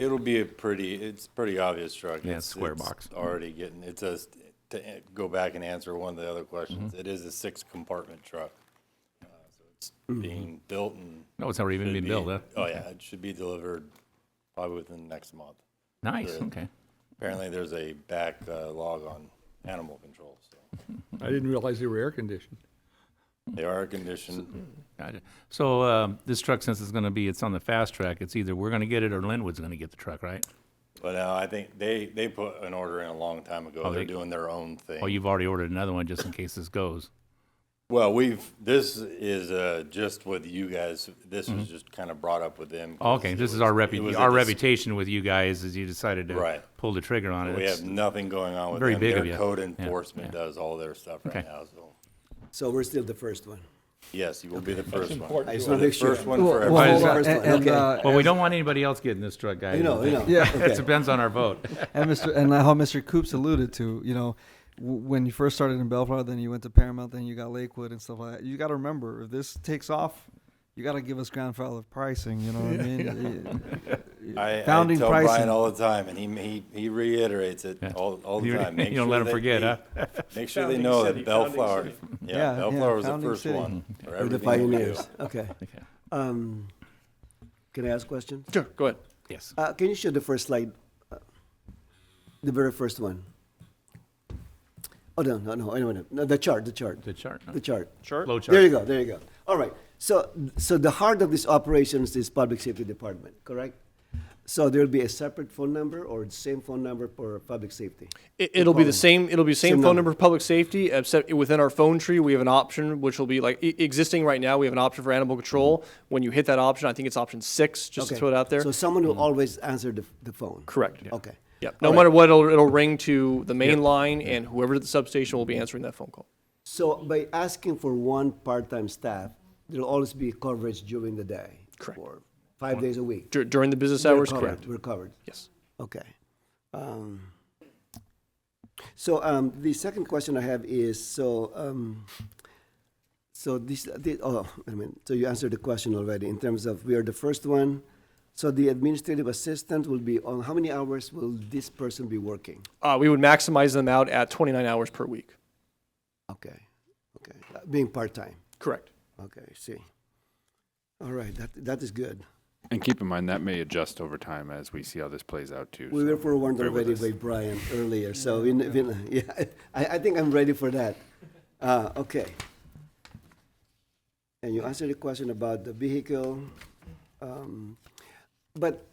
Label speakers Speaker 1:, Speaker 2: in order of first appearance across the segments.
Speaker 1: It'll be a pretty, it's pretty obvious truck.
Speaker 2: Yeah, square box.
Speaker 1: Already getting, it's a, to a- go back and answer one of the other questions,
Speaker 2: Mm-hmm.
Speaker 1: it is a six compartment truck. Uh, so It's being built and.
Speaker 2: No, Oh, it's already even
Speaker 1: should
Speaker 2: been
Speaker 1: be-
Speaker 2: built, huh?
Speaker 1: Oh, yeah, it should be delivered probably within the next month.
Speaker 2: Nice,
Speaker 1: Yeah.
Speaker 2: okay.
Speaker 1: Apparently, there's a back uh, log on animal control, so
Speaker 3: I didn't realize they were air conditioned.
Speaker 1: they are conditioned.
Speaker 2: Gotcha. So um, this truck, since it's going to be, it's on the fast track, it's either we're going to get it or Linwood's going to get the truck, right?
Speaker 1: But uh, I think they, they put an order in a long time ago. They're
Speaker 2: Oh, they-
Speaker 1: doing their own thing.
Speaker 2: Oh, you've already ordered another one just in case this goes.
Speaker 1: Well, we've, this is uh, just with you guys, this was just kind of brought up with them. 'cause
Speaker 2: Mm-hmm. Oh, Okay,
Speaker 1: it
Speaker 2: this is
Speaker 1: was-
Speaker 2: our
Speaker 1: it was
Speaker 2: repu-
Speaker 1: a
Speaker 2: our
Speaker 1: dis-
Speaker 2: reputation with you guys is you decided to
Speaker 1: Right.
Speaker 2: pull the trigger on it.
Speaker 1: We
Speaker 2: It's-
Speaker 1: have nothing going on with
Speaker 2: Very
Speaker 1: them.
Speaker 2: big of
Speaker 1: Their
Speaker 2: you.
Speaker 1: code
Speaker 2: Yeah,
Speaker 1: enforcement does all their stuff right
Speaker 2: Okay.
Speaker 1: now, so.
Speaker 4: So we're still the first one.
Speaker 1: Yes, you will be the first one.
Speaker 4: I just want to make sure.
Speaker 1: First one for
Speaker 4: Well,
Speaker 1: everybody.
Speaker 4: well, First one,
Speaker 5: And,
Speaker 4: okay.
Speaker 5: uh,
Speaker 2: Well, we don't want anybody else getting this truck, guys.
Speaker 4: You know, you know.
Speaker 5: Yeah.
Speaker 2: It depends on our vote.
Speaker 5: uh, and Mr. and how Mr. Coops alluded to, you know, w- when you first started in Bellflower, then you went to Paramount, then you got Lakewood and stuff like that. You got to remember, if this takes off, you got to give us grandfather pricing. You know what I mean? Eh,
Speaker 1: I, I tell
Speaker 5: Founding
Speaker 1: Brian
Speaker 5: pricing.
Speaker 1: all the time, and he, he, he reiterates it
Speaker 2: Yeah.
Speaker 1: all, all the
Speaker 2: You-
Speaker 1: time. Make
Speaker 2: you don't
Speaker 1: sure
Speaker 2: let 'em
Speaker 1: that
Speaker 2: forget,
Speaker 1: they- Make sure they know that Bellflower, yeah,
Speaker 5: Yeah, yeah,
Speaker 1: Bellflower was the
Speaker 5: founding
Speaker 1: first
Speaker 5: city.
Speaker 1: one. for
Speaker 4: We're the
Speaker 1: everything we do.
Speaker 4: pioneers. Okay. Um, Can I ask questions?
Speaker 6: Sure, go ahead.
Speaker 2: Yes.
Speaker 4: Uh, Can you show the first slide? Uh, The very first one? Oh, no, no, no, anyway, no, the chart, the chart,
Speaker 2: The chart. no?
Speaker 4: the chart.
Speaker 6: Sure.
Speaker 2: Flow
Speaker 4: There you
Speaker 2: chart.
Speaker 4: go, there you go. All right. So, so the heart of these operations is Public Safety Department, correct?
Speaker 6: Mm-hmm.
Speaker 4: So there'll be a separate phone number or the same phone number for Public Safety?
Speaker 6: It, it'll be
Speaker 4: phone.
Speaker 6: the same. It'll be the same,
Speaker 4: Same
Speaker 6: phone
Speaker 4: number.
Speaker 6: number for public safety. Except within our phone tree, we have an option which will be like e- existing right now. We have an option for animal control. When you hit that option, I think it's option six. Just
Speaker 4: Mm-hmm. Okay.
Speaker 6: to throw it out there. Mm-hmm.
Speaker 4: So someone will always answer the, the phone?
Speaker 6: Correct.
Speaker 4: Okay.
Speaker 6: Yep. No
Speaker 4: All right.
Speaker 6: matter what, it'll, it'll ring to the main line, and whoever at the substation will be answering that phone call.
Speaker 4: So by asking for one part-time staff, there'll always be coverage during the day?
Speaker 6: Correct.
Speaker 4: for Five days a week?
Speaker 6: Dur- during the business
Speaker 4: We're
Speaker 6: hours,
Speaker 4: covered,
Speaker 6: correct?
Speaker 4: We're covered.
Speaker 6: Yes.
Speaker 4: Okay. Um, So um, the second question I have is, so, um, so this, the- oh, I mean, so you answered the question already in terms of we are the first one. So the administrative assistant will be on, how many hours will this person be working?
Speaker 6: Uh, we would maximize them out at 29 hours per week.
Speaker 4: Okay, okay, Uh, being part-time,
Speaker 6: Correct.
Speaker 4: okay, I see. All right, that, that is good.
Speaker 7: And keep in mind that may adjust over time as we see how this plays out too.
Speaker 4: We
Speaker 7: so
Speaker 4: were forewarned
Speaker 7: bear with
Speaker 4: already
Speaker 7: us.
Speaker 4: by Brian earlier, so we, kn- we kn- yeah, I, I think I'm ready for that. Uh, okay. And you answered the question about the vehicle. Um, but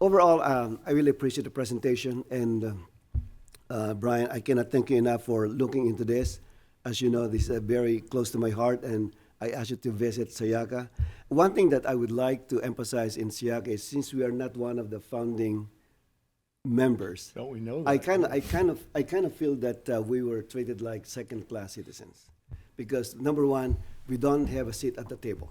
Speaker 4: overall, um, I really appreciate the presentation and uh, uh, Brian, I cannot thank you enough for looking into this. As you know, this is uh, very close to my heart, and I asked you to visit Sayaka. One thing that I would like to emphasize in Sayaka is since we are not one of the founding members,
Speaker 3: Don't we know that? Oh.
Speaker 4: I kind of, I kind of, I kind of feel that uh, we were treated like second-class citizens, because number one, we don't have a seat at the table.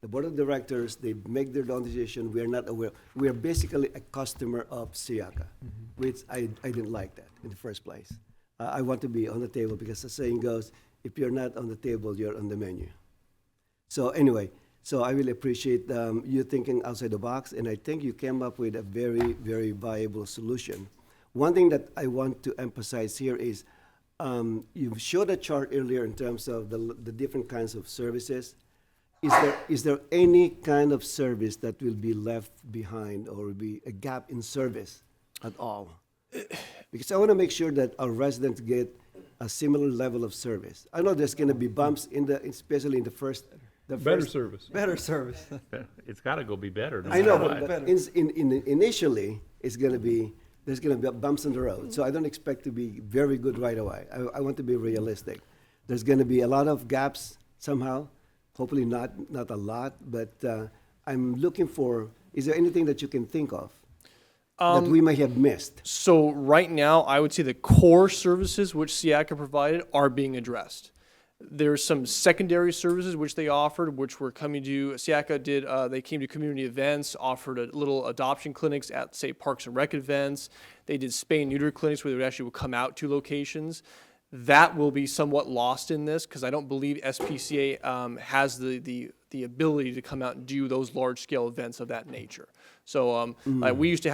Speaker 4: The board of directors, they make their own decision. We are not aware. We are basically a customer of Siaka,
Speaker 3: Mm-hmm.
Speaker 4: which I, I didn't like that in the first place. Uh, I want to be on the table because the saying goes, if you're not on the table, you're on the menu. So anyway, so I really appreciate um, you thinking outside the box, and I think you came up with a very, very viable solution. One thing that I want to emphasize here is um, you showed a chart earlier in terms of the, the different kinds of services. Is there, is there any kind of service that will be left behind or will be a gap in service at all? Because I want to make sure that our residents get a similar level of service. I know there's going to be bumps in the, especially in the first, the
Speaker 3: Better
Speaker 4: first.
Speaker 3: service.
Speaker 5: Better service.
Speaker 2: It's got to go be better. no
Speaker 4: I know,
Speaker 2: matter
Speaker 4: but,
Speaker 2: what.
Speaker 4: but in, in, in- initially, it's going to be, there's going to be bumps in the road. So I don't expect to be very good right away. I, I want to be realistic. There's going to be a lot of gaps somehow. Hopefully not, not a lot, but uh, I'm looking for, is there anything that you can think of that we may have missed?
Speaker 6: So right now, I would say the core services which Siaka provided are being addressed. There's some secondary services which they offered, which were coming to Siaka did. Uh, they came to community events, offered a little adoption clinics at say Parks and Rec events. They did spay and neuter clinics where they would actually would come out to locations. That will be somewhat lost in this because I don't believe SPCA um, has the the the ability to come out and do those large scale events of that nature. So um, like, we used to have.